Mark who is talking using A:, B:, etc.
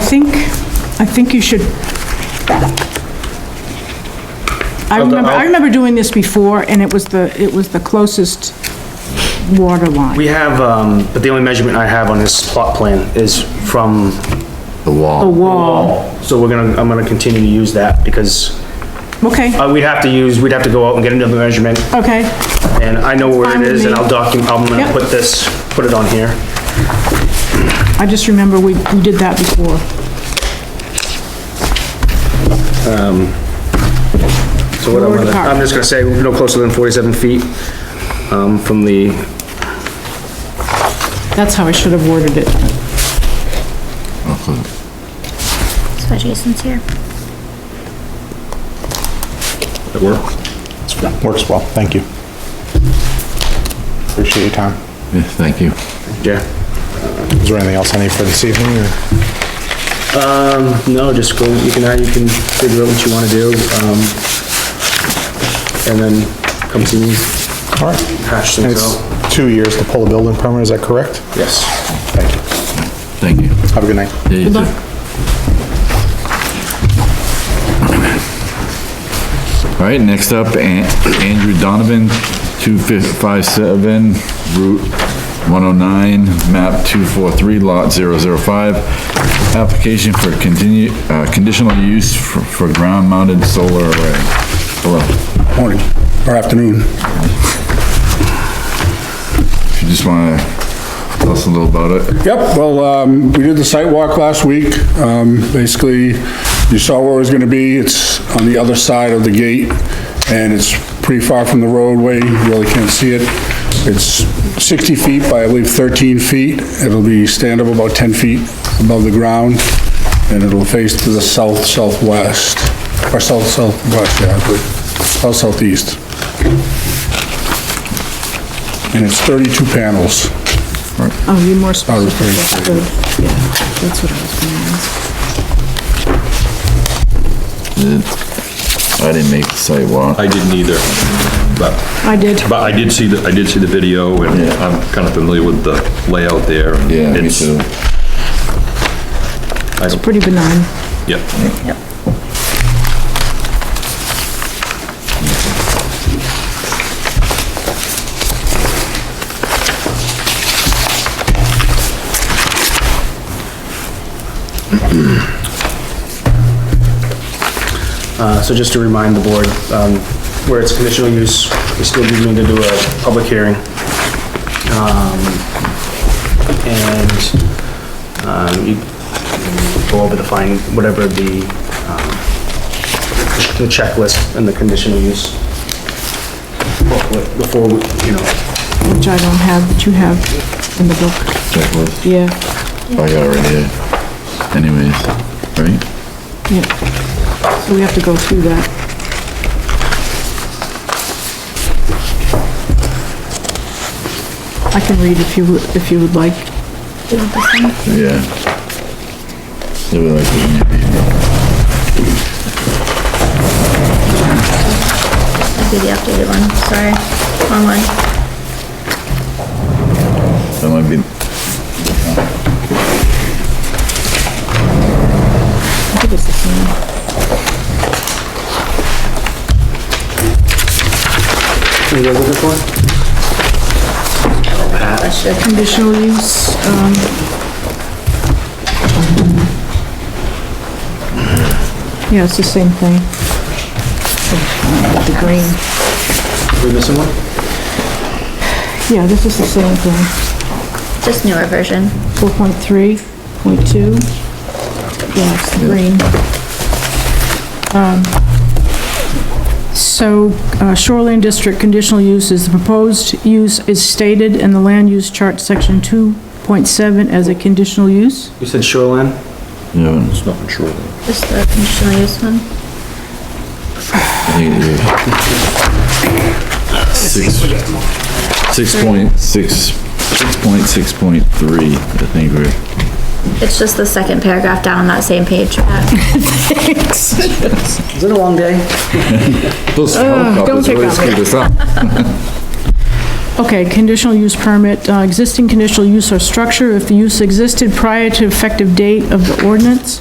A: think, I think you should. I
B: I'll-
A: remember, I
B: I'll-
A: remember doing this before, and it was the, it was the closest water line.
B: We have, um, but the only measurement I have on this plot plan is from
C: The
A: The
C: wall.
A: wall,
B: wall. So we're gonna, I'm gonna continue to use that because,
A: okay,
B: uh, we'd have to use, we'd have to go out and get another measurement.
A: okay,
B: And I know where
A: Fine
B: it
A: with
B: is and
A: me.
B: I'll document, I'm gonna
A: Yep.
B: put this, put it on here.
A: I just remember we, we did that before.
B: So what I'm
A: Lower
B: gonna,
A: depart-
B: I'm just gonna say, no closer than forty-seven feet, um, from the,
A: That's how I should have worded it.
D: That's why Jason's here.
C: It works.
E: Works well, thank you. Appreciate your time.
C: Yeah, thank you.
B: yeah.
E: Is there anything else I need for this evening? or-
B: No, just go, you can, you can figure out what you wanna do, um, and then come see me,
E: All right.
B: hash
E: And
B: things
E: it's
B: out.
E: two years to pull a building permit, is that correct?
B: Yes.
E: Thank you.
C: Thank you.
E: Have a good night.
C: Yeah, you
A: Good
C: too.
A: luck.
C: All right, next up, An- Andrew Donovan, 2557 Route 109, map 243, lot 005. Application for continue, uh, conditional use for- for ground-mounted solar array. Hello, if
F: Morning, or afternoon.
C: you just want to tell us a little about it.
F: Yep, well, um, we did the site walk last week. Um, Basically, you saw where it was gonna be. It's on the other side of the gate, and it's pretty far from the roadway. You really can't see it. It's 60 feet by, I believe, 13 feet. It'll be stand up about 10 feet above the ground, and it'll face to the south southwest, or south southwest, yeah, but south southeast. And it's 32 panels.
A: Oh, you more
F: I
A: specific.
F: was very excited.
A: Good. Yeah, that's what I was gonna ask.
C: I didn't make the site walk.
G: I didn't either, but,
A: I did.
G: but I did see the, I did see the video, and
C: Yeah.
G: I'm kind of familiar with the layout there. and
C: Yeah, me
G: it's-
C: too.
G: I don't-
A: Pretty benign.
G: Yeah,
B: Uh, so just to remind the board, um, where it's conditional use, we still do need to do a public hearing. Um, and, um, you go over the fine, whatever the, um, the checklist and the conditional use. booklet Before, we, you know,
A: which I don't have, but you have in the book,
C: Checklist.
A: yeah,
C: I got it right here. Anyways, right?
A: yeah. So we have to go through that. I can read if you, would- if you would like.
C: Yeah. They were like, "Wouldn't you be-"
D: I'll do the updated one, sorry, online.
C: that might be,
A: I think it's the same.
B: what you guys looking for?
A: Conditional use, um, yeah, it's the same thing. The green,
B: We missing one?
A: yeah, this is the same thing,
D: Just newer version.
A: four point three, point two. Yeah, it's the green. Um, So uh, Shoreland District conditional use is the proposed use is stated in the land use chart, section 2.7, as a conditional use?
B: You said shoreline?
C: yeah,
G: it's nothing sure.
D: Just the conditional use one.
C: I think it is. Six, six point, six, six point, six point three, I think we're,
D: It's just the second paragraph down on that same page.
B: Is it a long day?
C: those
A: don't
C: helicopters
A: pick
C: really
A: on
C: screwed us up.
A: Okay, conditional use permit, uh, existing conditional use or structure if the use existed prior to effective date of the ordinance?